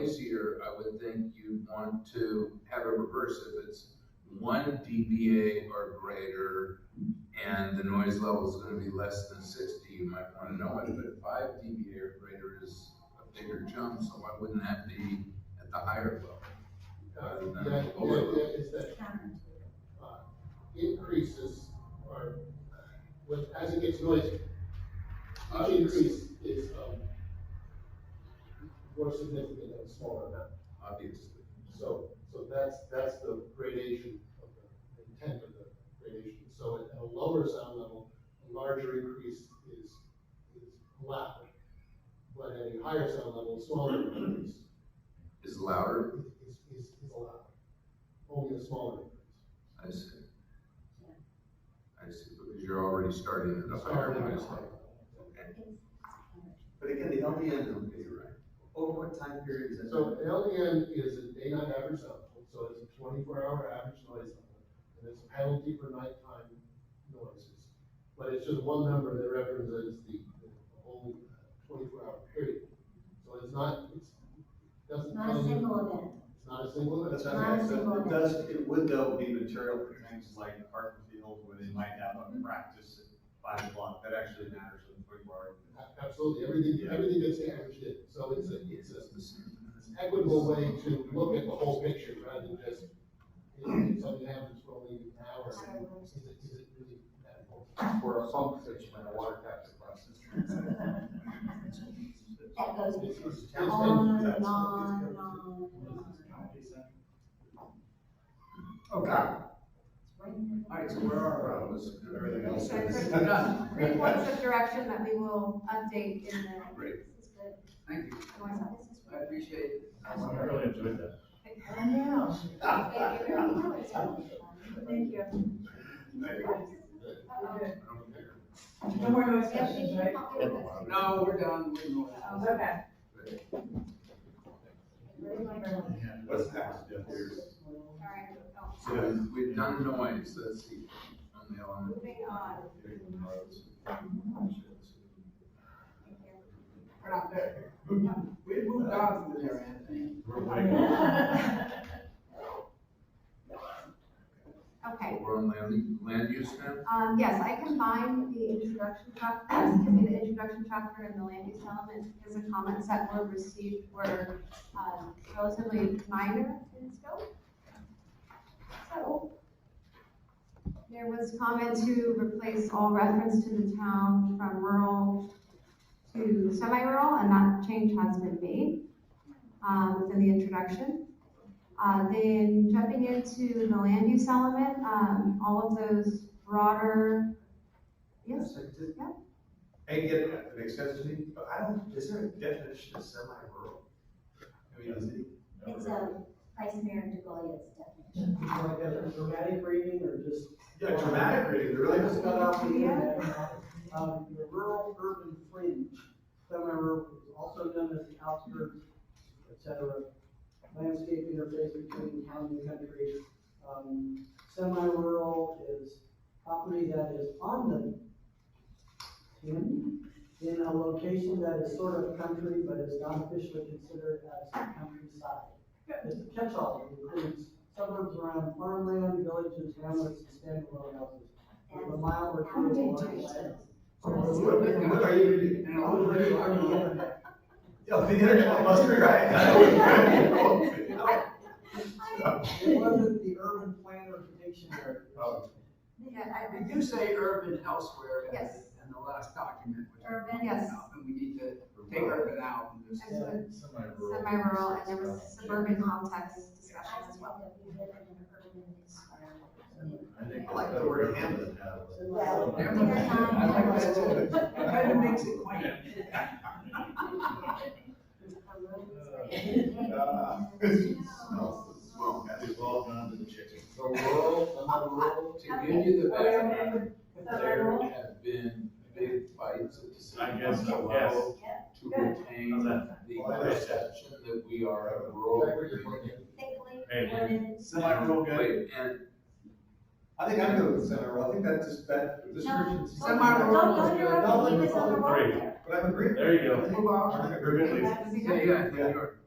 pricier, I would think you'd want to have it reversed if it's one dBA or greater and the noise level is gonna be less than sixty, you might wanna know it, but five dBA or greater is a bigger jump, so why wouldn't that be at the higher level? rather than Yeah, the lower yeah, level? yeah, it's that counterintuitive. uh, increases are, with, as it gets noisy, each increase is, um, more significant than a smaller amount. Obviously, So, so that's, that's the gradation of the, intent of the gradation. So at a lower sound level, a larger increase is, is allowed. But at a higher sound level, a smaller increase is louder, is, is, is allowed. Only a smaller increase. I see. I see, because you're already starting at a higher noise level. But again, the LDN, You're right. over what time period is it? So LDN is a daytime average level, so it's a twenty-four hour average noise level, and it's a penalty for nighttime noises. But it's just one number that represents the, the whole twenty-four hour period. So it's not, it's, doesn't Not tell a you, single event. it's not a single. That's what Nine I'm saying, so people. it does, it would though be material for things like Hartman Field, where they might have a practice at five o'clock, that actually matters in twenty-four hours. A- Absolutely, everything, Yeah. everything gets averaged in, so it's a, it's a it's an equitable way to look at the whole picture rather than just, you know, if something happens for only an hour, is it, is it really that important? for a pump station and a water capture process. That goes It's- it's- it's- on that's- that's- and on and on. Okay, all right, so where are Well, it's- we? Everything else is. Three points of direction that we will update in the. Great. This is good. Thank you. You want some? This is I appreciate it. I really enjoyed that. great. I know. Thank you. Thank you. I don't care. No more noise Yes, you sessions, can right? help me with this. No, we're done. We're going. Okay. Really like that. All What's next, Jeff? Here's- right, oh, So we've done noise, that's the only element. moving on. We're not there. We moved on from there, Anthony. We're like- Okay, We're on land, land use now? Um, yes, I combined the introduction chapter, excuse me, the introduction chapter and the land use element, because the comments that were received were, um, relatively minor in scope. So, there was comment to replace all reference to the town from rural to semi-rural, and that change has been made, um, within the introduction. Uh, then jumping into the land use element, um, all of those broader, yes, So does- Yeah. I get it, that makes sense to me, but I don't, is there a definition of semi-rural? I mean, is it? It's a Vice Mayor DeGoya's definition. dramatic reading or just? Yeah, dramatic reading, there really Just doesn't. cut off the end. Um, the rural urban fringe, semi-rural is also known as the outskirts, et cetera. Landscape interface between town and country. Um, semi-rural is property that is on the in, in a location that is sort of country, but is not officially considered as countryside. It's a catch-all, it includes suburbs around farmland, villages, hamlets, and standalone houses. With a mile or two of Outdated. land. What, what are you reading? And I was ready for the other. Yeah, the internet must be right. It wasn't the urban planner dictionary. Oh. yeah, I We do say urban elsewhere. in- Yes. In the last document. which- Urban. Yes. And we need to take urban out and just. And so Semi-rural. semi-rural, and there was suburban context discussion as well. I think I like the word Hamlet now. Well, I they're not- like that too. That kind of makes it quaint. Uh, smells- smells bad. We've all gone to the chicken. So rural, semi-rural, to give you the best, there have been big fights at the I city guess council so, yes. level to retain How's the that? perception that we are a rural community. Thickly Hey, dude. wooded Semi-rural guy. Wait, and I think I'm good with semi-rural, I think that's just, that description. Semi-rural. Don't, don't interrupt me, he was on the wrong Great. there. But I'm agreeing. There you go. I think I'm agreeing. Urban, That'd be Yeah, great. yeah, I think you are.